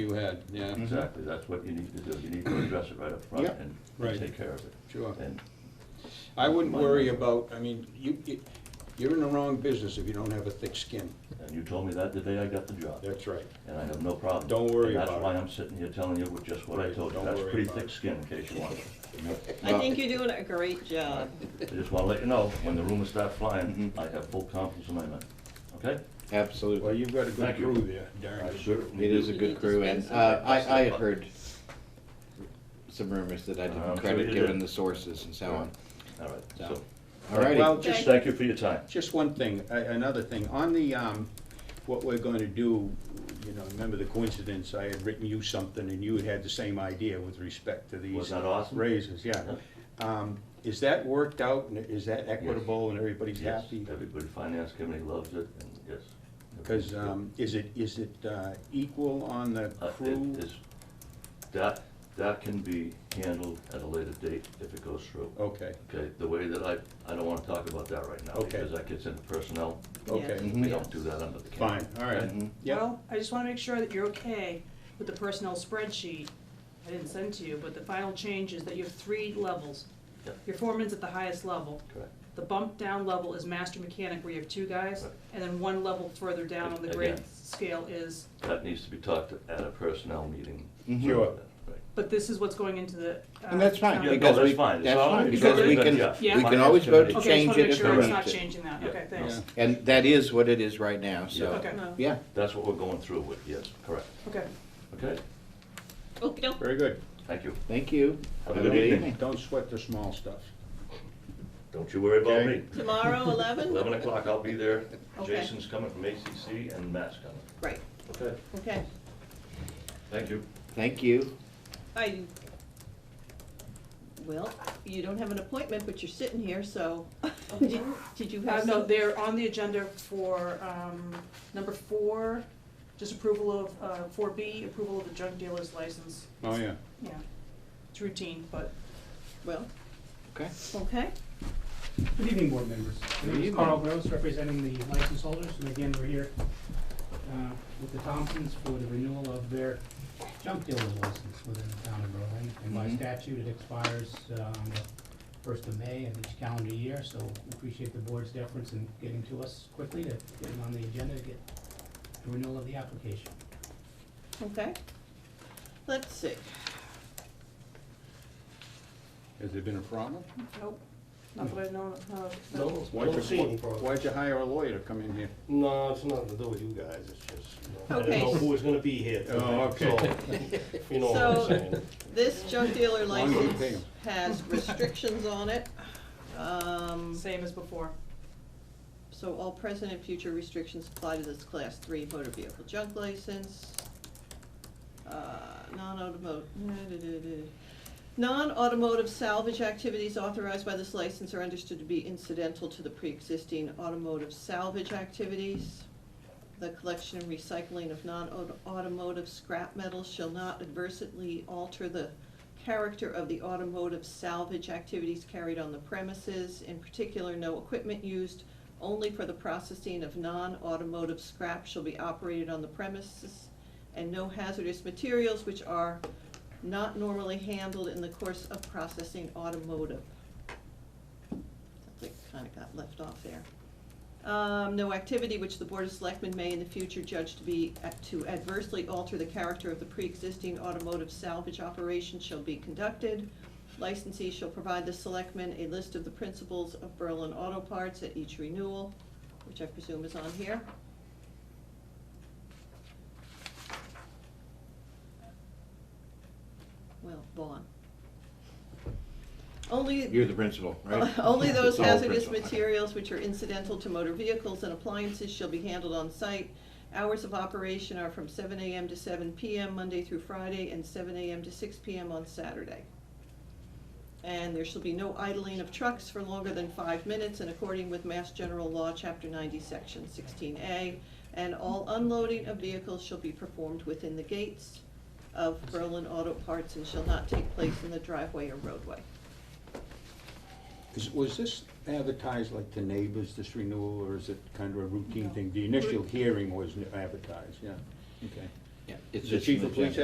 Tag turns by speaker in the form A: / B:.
A: you had, yeah,
B: Mm-hmm.
C: Exactly, that's what you need to do, you need to address it right up front
B: Yeah.
C: and
A: Right.
C: take care of it.
A: sure.
C: And,
A: I wouldn't
C: Mine
A: worry
C: was-
A: about, I mean, you, you- you're in the wrong business if you don't have a thick skin.
C: and you told me that the day I got the job,
A: That's right.
C: and I have no problem.
A: Don't worry
C: And
A: about
C: That's why
A: it.
C: I'm sitting here telling you with just what I
A: Right,
C: told you,
A: don't
C: that's
A: worry
C: pretty
A: about
C: thick
A: it.
C: skin in case you want it.
D: I think you're doing a great job.
C: I just wanna let you know, when the rumors start flying,
B: Mm-hmm.
C: I have full confidence in my men, okay?
A: Well,
B: Absolutely.
A: you've got a good
C: Thank you.
A: crew there, Darren.
C: certainly
B: It is a
D: You
B: good
D: need to
B: crew,
D: spend
B: and
D: some
B: uh, I, I had
C: time.
B: heard some rumors that I
C: Um,
B: didn't
C: so
B: credit,
C: you
B: given
C: did.
B: the sources and so on.
C: All right,
B: So,
C: so,
B: All righty.
A: Well,
C: just
A: just,
C: thank you for your time.
A: just one thing, a- another thing, on the, um, what we're gonna do, you know, remember the coincidence, I had written you something and you had had the same idea with respect to these.
C: Was that awesome?
A: Raises, yeah. Um, is that worked out and is that equitable and everybody's
C: Yes,
A: happy?
C: everybody, finance committee loves it, and yes.
A: Because, um, is it, is it, uh, equal on the
C: Uh, it
A: crew?
C: is- That, that can be handled at a later date if it goes through.
A: Okay,
C: Okay, the way that I, I don't wanna talk about that right now,
A: Okay.
C: because that gets into personnel.
A: okay,
B: Mhm.
C: We don't do that under the
A: fine,
C: camp.
A: all right.
B: Mhm.
A: Yeah,
E: Well, I just wanna make sure that you're okay with the personnel spreadsheet I didn't send to you, but the final change is that you have three levels.
C: Yeah.
E: Your foreman's at the highest level.
C: Correct.
E: The bump down level is master mechanic where you have two guys,
C: Right.
E: and then one level further down on the grade
C: Again.
E: scale is,
C: That needs to be talked at a personnel meeting.
B: Mhm.
A: Mm-hmm. Sure.
C: Right.
E: but this is what's going into the. uh,
B: And that's fine,
E: town.
C: Yeah, no,
B: because
C: that's
B: we,
C: fine. It's
B: that's
C: all-
B: fine,
E: it's
B: because
E: all
B: we
E: good,
B: can,
C: yeah.
B: we
E: Yeah.
B: can always vote to
C: Okay,
E: Okay, I just
B: change
E: wanna
B: it
E: make
B: if
E: sure
B: we
E: it's
B: need
E: not
B: to.
E: changing that,
C: Yeah.
E: okay, thanks.
A: yeah,
B: And that is what it is right now,
C: Yeah.
B: so,
E: Okay,
B: yeah.
C: That's what we're going through with, yes, correct.
E: okay.
C: Okay,
D: Okey doke.
A: very good.
C: thank you.
B: Thank you.
C: Have a
B: Have
C: good
B: a good
C: evening.
B: evening.
A: Don't sweat the small stuff.
C: Don't you worry about
A: Okay.
C: me.
D: Tomorrow, eleven?
C: Eleven o'clock, I'll be there.
D: Okay.
C: Jason's coming from ACC and Matt's coming.
D: Right,
C: Okay,
D: okay.
C: thank you.
B: Thank you.
D: I, well, you don't have an appointment, but you're sitting here, so, did did you
E: Uh,
D: have
E: no,
D: some?
E: they're on the agenda for, um, number four, just approval of, uh, four B, approval of the junk dealer's license.
A: Oh, yeah.
E: Yeah, it's routine, but.
D: Well,
B: Okay.
D: okay.
F: Good evening, board members. My name
B: evening.
F: is Carl Gross, representing the license holders, and again, we're here uh, with the Thompsons for the renewal of their junk dealer license within the town of Berlin. And by
B: Mhm.
F: statute, it expires uh, on the first of May of each calendar year, so we appreciate the board's deference in getting to us quickly to get it on the agenda, to get the renewal of the application.
D: Okay. Let's see.
A: Has there been a problem?
E: Nope, not that I know of. uh,
G: No,
A: Why'd
G: don't see any
A: you,
G: problem.
A: why'd you hire a lawyer to come in here?
G: No, it's nothing to do with you guys, it's just, you know, I
D: Okay.
G: didn't know who was gonna be here today.
A: Oh, okay.
G: so, You know what
D: So-
G: I'm saying?
D: This junk dealer
A: Long as you pay
D: license
A: 'em.
D: has restrictions on it. Um,
E: Same as before.
D: so all present and future restrictions apply to this class three motor vehicle junk license. Uh, non-automotive, non-automotive salvage activities authorized by this license are understood to be incidental to the pre-existing automotive salvage activities. The collection and recycling of non-automotive scrap metals shall not adversely alter the character of the automotive salvage activities carried on the premises. In particular, no equipment used only for the processing of non-automotive scrap shall be operated on the premises, and no hazardous materials which are not normally handled in the course of processing automotive. That kinda got left off there. Um, no activity which the Board of Selectmen may in the future judge to be, uh, to adversely alter the character of the pre-existing automotive salvage operation shall be conducted. Licensee shall provide the selectmen a list of the principles of Berlin Auto Parts at each renewal, which I presume is on here. Well, Vaughn. Only.
B: You're the principal, right?
D: Only those
B: It's all
D: hazardous
B: principal. Okay.
D: materials which are incidental to motor vehicles and appliances shall be handled on site. Hours of operation are from seven AM to seven PM, Monday through Friday, and seven AM to six PM on Saturday. And there shall be no idling of trucks for longer than five minutes in according with Mass General Law, Chapter ninety, Section sixteen A. And all unloading of vehicles shall be performed within the gates of Berlin Auto Parts and shall not take place in the driveway or roadway.
A: Is, was this advertised like to neighbors, this renewal, or is it kind of a routine thing? The initial hearing was advertised, yeah, okay.
B: Yeah, it's
A: The
B: just
A: chief
B: an
A: of police
B: agenda.